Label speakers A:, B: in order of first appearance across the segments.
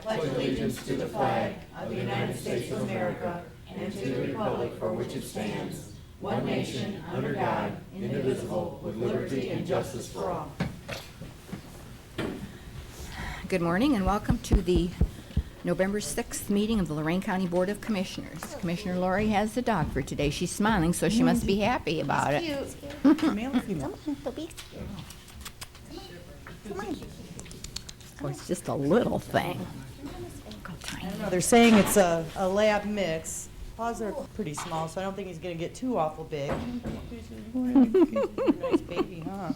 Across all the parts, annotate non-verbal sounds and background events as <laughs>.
A: pledge allegiance to the flag of the United States of America and to the republic for which it stands, one nation, under God, indivisible, with liberty and justice for all.
B: Good morning and welcome to the November 6th meeting of the Lorraine County Board of Commissioners. Commissioner Lori has the dog for today. She's smiling, so she must be happy about it.
C: Male or female?
D: Come on, Toby. Come on.
B: Oh, It's just a little thing. Look how tiny.
C: No, They're saying it's a, a lab mix. Paws are pretty small, so I don't think he's gonna get too awful big. Nice baby, huh?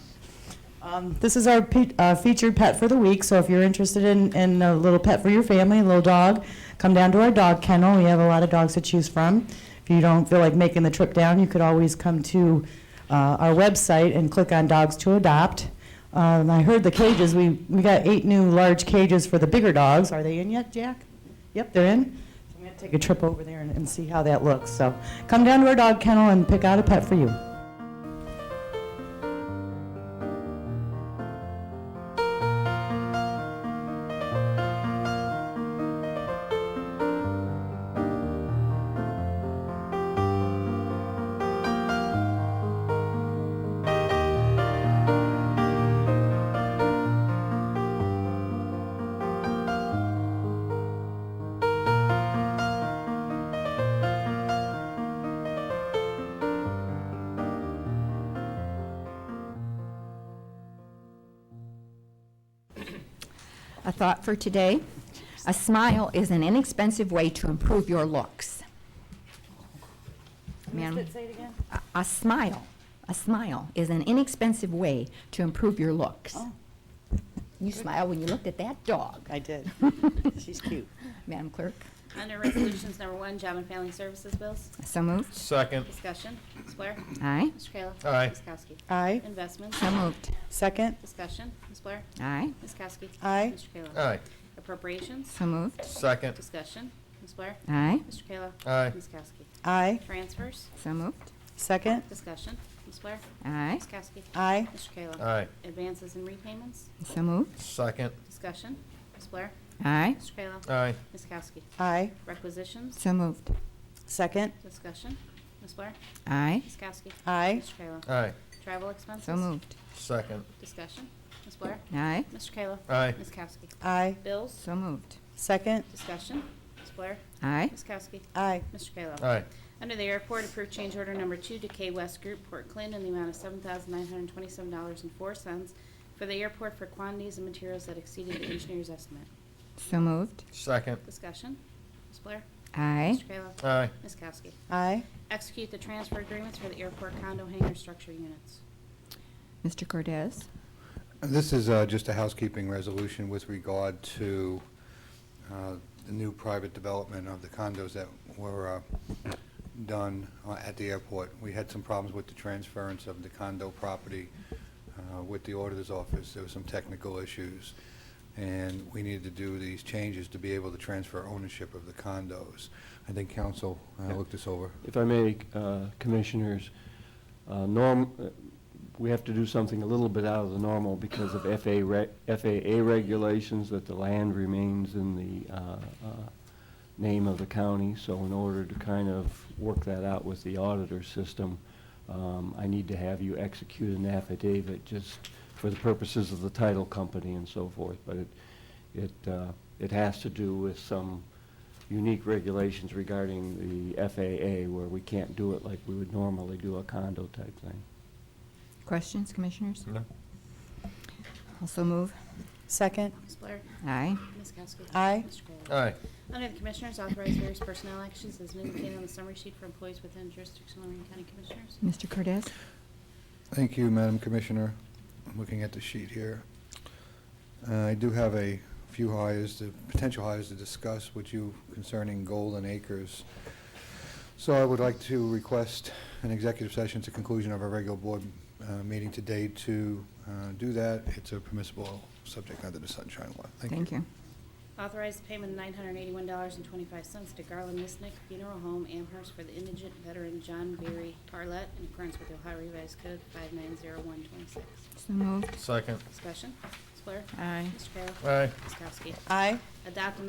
C: Um, this is our pe- uh, featured pet for the week, so if you're interested in, in a little pet for your family, a little dog, come down to our dog kennel. We have a lot of dogs to choose from. If you don't feel like making the trip down, you could always come to uh, our website and click on Dogs to Adopt. Um, I heard the cages, we, we got eight new large cages for the bigger dogs. Are they in yet, Jack? Yep, they're in. So I'm going to take a trip over there and, and see how that looks. So come down to our dog kennel and pick out a pet for you.
B: A thought for today. A smile is an inexpensive way to improve your looks. Ma'am? A- A smile, a smile is an inexpensive way to improve your looks.
C: Oh.
B: You smiled when you looked at that dog. <laughs>
C: I did. She's cute.
B: Madam Clerk,
E: Under Resolutions Number One, Job and Family Services Bills,
B: so moved.
A: Second.
E: discussion, Ms. Blair.
B: Aye.
E: Mr. Kayla.
A: Aye.
E: Ms. Kowski.
C: Aye.
E: Investments,
B: So moved.
C: Second.
E: discussion, Ms. Blair.
B: Aye.
E: Ms. Kowski.
C: Aye.
E: Mr. Kayla.
A: Aye.
E: Appropriations,
B: So moved.
A: Second.
E: discussion, Ms. Blair.
B: Aye.
E: Mr. Kayla.
A: Aye.
E: Ms. Kowski.
C: Aye.
E: Transfers,
B: So moved.
C: Second.
E: discussion, Ms. Blair.
B: Aye.
E: Ms. Kowski.
C: Aye.
E: Mr. Kayla.
A: Aye.
E: Advances and repayments,
B: So moved.
A: Second.
E: discussion, Ms. Blair.
B: Aye.
E: Mr. Kayla.
A: Aye.
E: Ms. Kowski.
C: Aye.
E: Requisitions,
B: So moved.
C: Second.
E: discussion, Ms. Blair.
B: Aye.
E: Ms. Kowski.
C: Aye.
E: Mr. Kayla.
A: Aye.
E: Travel expenses.
B: So moved.
A: Second.
E: Discussion, Ms. Blair.
B: Aye.
E: Mr. Kayla.
A: Aye.
E: Ms. Kowski.
C: Aye.
E: Bills.
B: So moved.
C: Second.
E: Discussion, Ms. Blair.
B: Aye.
E: Ms. Kowski.
C: Aye.
E: Mr. Kayla.
A: Aye.
E: Under the airport, approved change order number two to K West Group, Port Clinton, in the amount of seven thousand nine hundred twenty-seven dollars and four cents for the airport for quantities and materials that exceeded the engineer's estimate.
B: So moved.
A: Second.
E: Discussion, Ms. Blair.
B: Aye.
E: Mr. Kayla.
A: Aye.
E: Ms. Kowski.
C: Aye.
E: Execute the transfer agreements for the airport condo hangar structure units.
B: Mr. Cordez?
F: This is uh, just a housekeeping resolution with regard to uh, the new private development of the condos that were uh, done uh, at the airport. We had some problems with the transference of the condo property uh, with the auditor's office. There were some technical issues, and we needed to do these changes to be able to transfer ownership of the condos. I think council uh, looked this over.
G: If I may, uh, Commissioners, uh, norm, uh, we have to do something a little bit out of the normal because of FAA reg- FAA regulations that the land remains in the uh, uh, name of the county. So in order to kind of work that out with the auditor system, um, I need to have you execute an affidavit just for the purposes of the title company and so forth. But it, it, uh, it has to do with some unique regulations regarding the FAA where we can't do it like we would normally do a condo type thing.
B: Questions, Commissioners?
A: No.
B: Also move.
C: Second.
E: Ms. Blair.
B: Aye.
E: Ms. Kowski.
C: Aye.
E: Mr. Kayla.
A: Aye.
E: Under the Commissioners, authorize various personnel actions as indicated on the summary sheet for employees within jurisdiction of Lorraine County Commissioners.
B: Mr. Cordez?
F: Thank you, Madam Commissioner. I'm looking at the sheet here. Uh, I do have a few hires, to- potential hires to discuss with you concerning Golden Acres. So I would like to request an executive session at the conclusion of our regular board uh, meeting today to uh, do that. It's a permissible subject under the sunshine law.
B: Thank you.
E: Authorize the payment of nine hundred eighty-one dollars and twenty-five cents to Garland Misnick Funeral Home Amherst for the indigent veteran John Berry Tarlet in accordance with the Ohio Revised Code five nine zero one twenty-six.
B: So moved.
A: Second.
E: Discussion, Ms. Blair.
B: Aye.
E: Mr. Kayla.
A: Aye.
E: Ms. Kowski.
C: Aye.
E: Adopt